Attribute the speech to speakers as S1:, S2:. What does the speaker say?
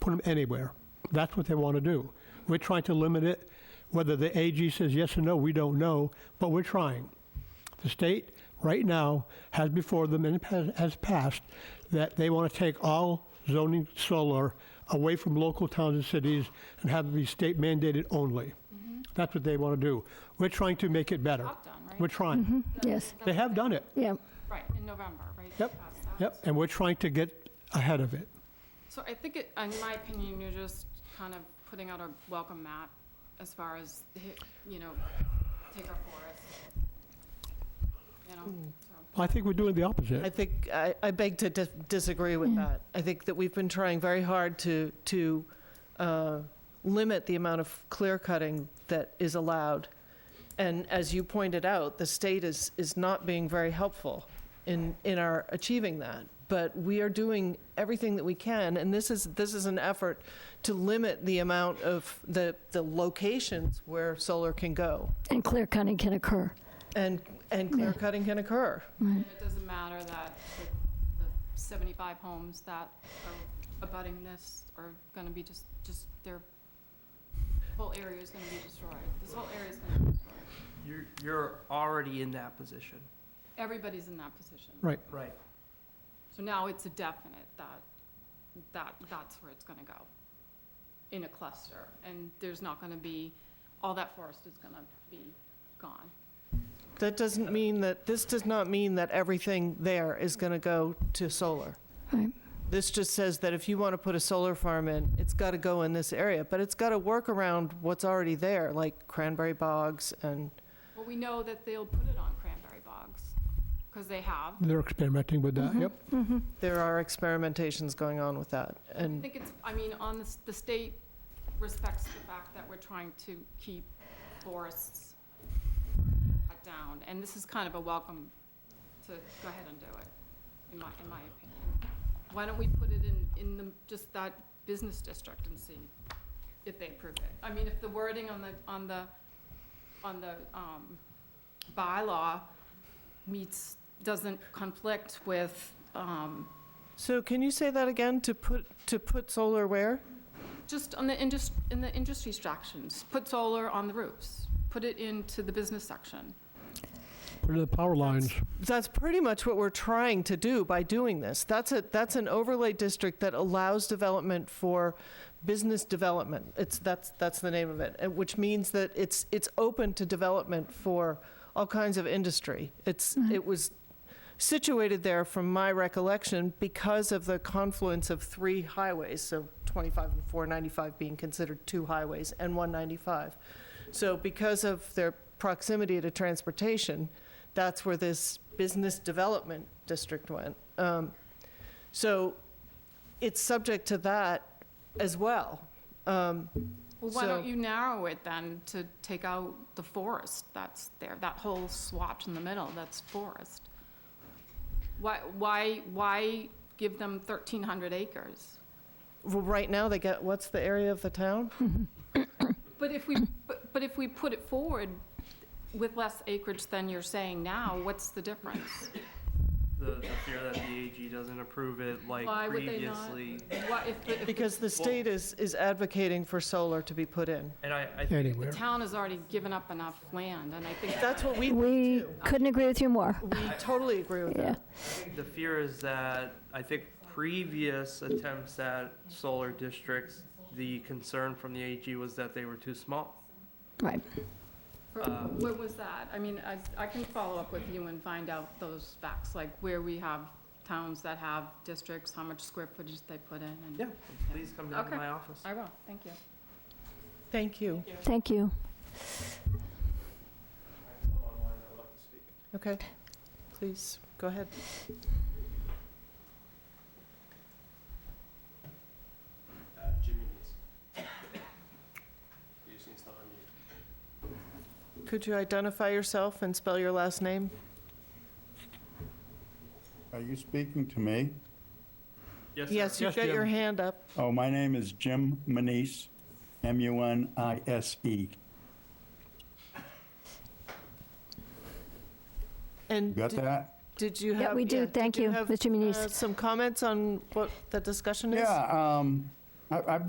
S1: put them anywhere. That's what they want to do. We're trying to limit it. Whether the AG says yes or no, we don't know, but we're trying. The state, right now, has before them and has- has passed that they want to take all zoning solar away from local towns and cities and have it be state mandated only. That's what they want to do. We're trying to make it better.
S2: Talked on, right?
S1: We're trying.
S3: Yes,
S1: They have done it.
S3: yeah.
S2: Right, in November, right?
S1: Yep,
S2: They passed that.
S1: Yep, and we're trying to get ahead of it.
S2: So I think, it- in my opinion, you're just kind of putting out a welcome map as far as, hi- you know, take our forest. You
S1: Hmm.
S2: know, so,
S1: I think we're doing the
S4: I
S1: opposite.
S4: think, I I beg to dis- disagree with that. I think that we've been trying very hard to, to uh, limit the amount of clear cutting that is allowed. And as you pointed out, the state is, is not being very helpful in, in our achieving that. But we are doing everything that we can, and this is, this is an effort to limit the amount of the, the locations where solar can go
S3: And clear cutting can occur.
S4: and, and clear cutting can occur.
S2: and It doesn't matter that the- the 75 homes that are abutting this are going to be just, just, their whole area is going to be destroyed. This whole area is going to be destroyed.
S5: You're, you're already in that position,
S2: Everybody's in that position.
S1: Right.
S5: right?
S2: So now it's a definite that, that, that's where it's gonna go, in a cluster. And there's not gonna be, all that forest is gonna be gone.
S4: That doesn't mean that, this does not mean that everything there is going to go to solar.
S3: Right.
S4: This just says that if you want to put a solar farm in, it's got to go in this area, but it's got to work around what's already there, like cranberry bogs and,
S2: Well, we know that they'll put it on cranberry bogs, because they have.
S1: They're experimenting with that, yep.
S4: there are experimentations going on with that.
S2: I
S4: And
S2: think it's, I mean, on the, s- the state respects the fact that we're trying to keep forests cut down, and this is kind of a welcome to go ahead and do it, in my, in my opinion. Why don't we put it in, in the, just that business district and see if they approve it? I mean, if the wording on the, on the, on the, um, bylaw meets, doesn't conflict with, um,
S4: so can you say that again, to put, to put solar where?
S2: Just on the indus, in the industry sections, put solar on the roofs, put it into the business section.
S1: What are the power lines?
S4: That's pretty much what we're trying to do by doing this. That's a, that's an overlay district that allows development for business development. It's, that's, that's the name of it, and which means that it's, it's open to development for all kinds of industry. It's, it was situated there from my recollection because of the confluence of three highways, so 25 and 495 being considered two highways and 195. So because of their proximity to transportation, that's where this business development district went. Um, So it's subject to that as well. Um,
S2: Well, why don't
S4: So-
S2: you narrow it then to take out the forest that's there, that whole swatch in the middle, that's forest? Why, why, why give them thirteen hundred acres?
S4: well, Right now, they get, what's the area of the town?
S2: But if we, but- but if we put it forward with less acreage than you're saying now, what's the difference?
S5: The, the fear that the AG doesn't approve it like
S2: Why would they not?
S5: previously.
S2: Why, if, the- if the
S4: Because the state is, is advocating for solar to be put in.
S5: And I, I think
S1: Anywhere.
S2: town has already given up enough land, and I think
S4: That's what we,
S3: We
S4: do.
S3: couldn't agree with you more.
S4: we totally agree with
S3: Yeah,
S4: that.
S5: the fear is that, I think previous attempts at solar districts, the concern from the AG was that they were too small. Uh,
S3: right.
S2: For- Where was that? I mean, I, I can follow up with you and find out those facts, like where we have towns that have districts, how much square footage they put in, and.
S5: Yeah, please come down to
S2: Okay.
S5: my office.
S2: I will, thank you.
S4: Thank you.
S3: Thank you.
S4: Okay, please, go ahead. Could you identify yourself and spell your last name?
S6: Are you speaking to me?
S5: Yes, sir.
S4: Yes, you've
S1: Yes,
S4: got your
S1: Jim.
S4: hand up.
S6: Oh, my name is Jim Manise, M-U-N-I-S-E.
S4: And
S6: You got
S4: did-
S6: that?
S4: did you have?
S3: Yeah, we do.
S4: did
S3: Thank you,
S4: have,
S3: Mr. Muniz.
S4: uh, Some comments on what the discussion is?
S6: Yeah, um, I- I've